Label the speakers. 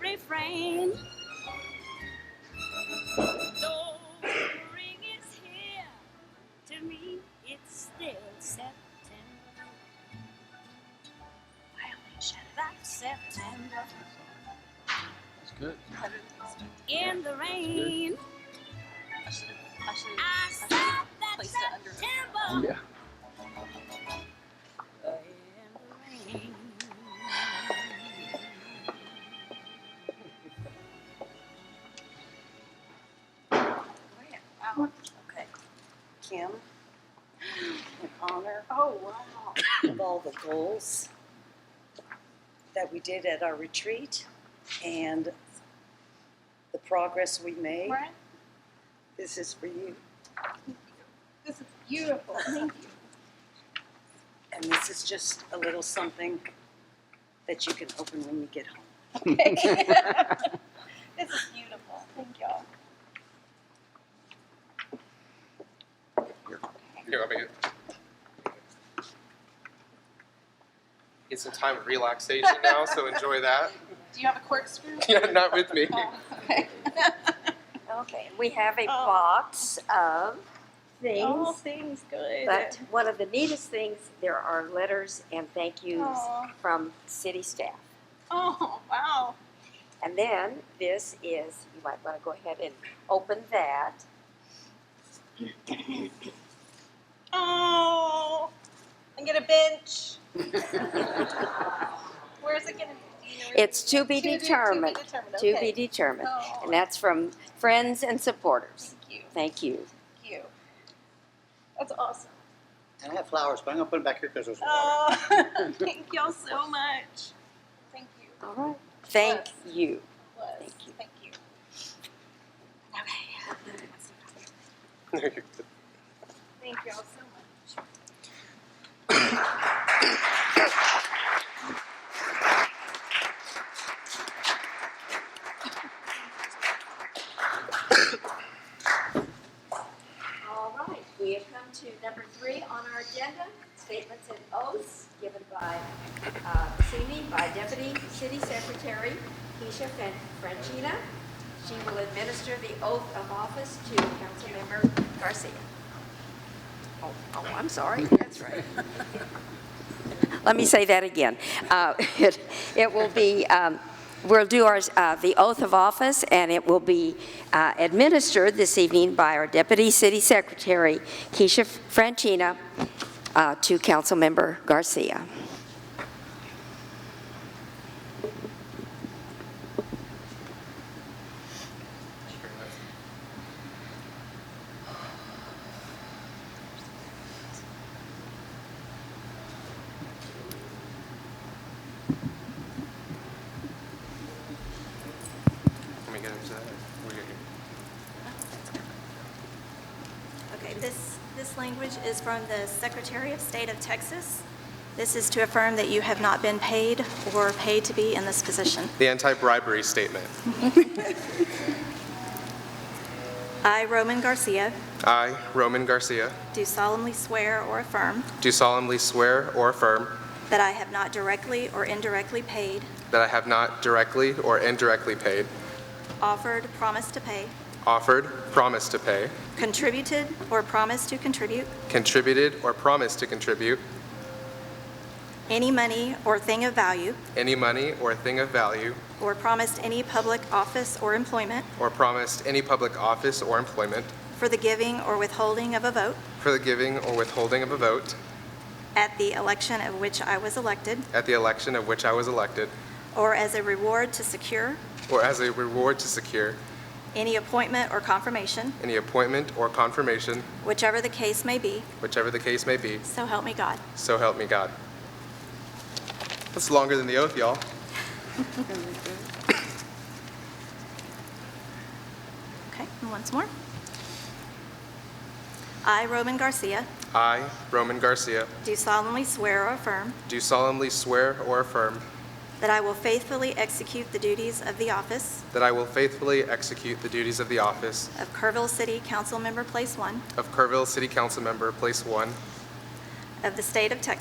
Speaker 1: refrain. Though spring is here, to me it's still September. Violation of September
Speaker 2: That's good.
Speaker 1: in the rain.
Speaker 3: I should have. I should
Speaker 1: I saw that
Speaker 3: Place it under.
Speaker 1: September
Speaker 2: Yeah.
Speaker 1: in the rain.
Speaker 3: have. Wow. Okay. Kim, in honor
Speaker 1: Oh wow!
Speaker 3: of all the goals that we did at our retreat and the progress we made,
Speaker 4: Right?
Speaker 3: this is for you.
Speaker 4: This is beautiful. Thank you.
Speaker 3: And this is just a little something that you can open when you get home.
Speaker 4: This is beautiful. Thank y'all.
Speaker 5: Here, I mean, get some time of relaxation now, so enjoy that.
Speaker 4: Do you have a corkscrew?
Speaker 5: Yeah, not with me.
Speaker 4: Oh, okay.
Speaker 6: Okay, we have a
Speaker 1: Oh.
Speaker 6: box
Speaker 4: Oh,
Speaker 6: of
Speaker 1: All
Speaker 6: things,
Speaker 1: things good.
Speaker 6: but one of the neatest things, there are letters and thank yous
Speaker 4: Aw.
Speaker 6: from city staff.
Speaker 4: Oh, wow.
Speaker 6: And then this is, you might want to go ahead and open that.
Speaker 4: Oh, and get a bench. Where's it gonna be?
Speaker 6: It's to be
Speaker 4: de-
Speaker 6: determined,
Speaker 4: To be determined.
Speaker 6: to
Speaker 4: okay.
Speaker 6: be determined.
Speaker 4: Oh,
Speaker 6: And that's from friends and supporters.
Speaker 4: thank you.
Speaker 6: Thank you.
Speaker 4: Thank you. That's awesome.
Speaker 7: And I have flowers, but I'm gonna put them back here because there's water.
Speaker 4: Oh,
Speaker 1: Thank y'all so much.
Speaker 4: thank you.
Speaker 6: All right. Thank
Speaker 4: Yes.
Speaker 6: you.
Speaker 4: Was.
Speaker 6: Thank you.
Speaker 4: Thank you. Thank you all so much.
Speaker 6: All right, we have come to number three on our agenda, statements and oaths given by, uh, see me, by Deputy City Secretary Keisha Fran- Francina. She will administer the oath of office to Councilmember Garcia. Oh, oh, I'm sorry, that's right. Let me say that again. Uh, It it will be, um, we'll do our, uh, the oath of office, and it will be uh, administered this evening by our Deputy City Secretary, Keisha Franchina, uh, to Councilmember Garcia.
Speaker 5: Let me get into that. We're good here.
Speaker 8: Okay, this, this language is from the Secretary of State of Texas. This is to affirm that you have not been paid or paid to be in this position.
Speaker 5: The anti-bribery statement.
Speaker 8: I, Roman Garcia,
Speaker 5: I, Roman Garcia,
Speaker 8: do solemnly swear or affirm
Speaker 5: do solemnly swear or affirm
Speaker 8: that I have not directly or indirectly paid,
Speaker 5: that I have not directly or indirectly paid,
Speaker 8: offered, promised to pay,
Speaker 5: offered, promised to pay,
Speaker 8: contributed, or promised to contribute
Speaker 5: contributed or promised to contribute
Speaker 8: any money or thing of value,
Speaker 5: any money or thing of value,
Speaker 8: or promised any public office or employment
Speaker 5: or promised any public office or employment
Speaker 8: for the giving or withholding of a vote
Speaker 5: for the giving or withholding of a vote
Speaker 8: at the election of which I was elected,
Speaker 5: at the election of which I was elected,
Speaker 8: or as a reward to secure
Speaker 5: or as a reward to secure
Speaker 8: any appointment or confirmation,
Speaker 5: any appointment or confirmation,
Speaker 8: whichever the case may be,
Speaker 5: whichever the case may be,
Speaker 8: so help me God.
Speaker 5: so help me God. That's longer than the oath, y'all.
Speaker 8: Okay, and once more. I, Roman Garcia,
Speaker 5: I, Roman Garcia,
Speaker 8: do solemnly swear or affirm
Speaker 5: do solemnly swear or affirm
Speaker 8: that I will faithfully execute the duties of the office
Speaker 5: that I will faithfully execute the duties of the office
Speaker 8: of Kerrville City Council Member Place One
Speaker 5: of Kerrville City Council Member, Place 1,
Speaker 8: of the State of Texas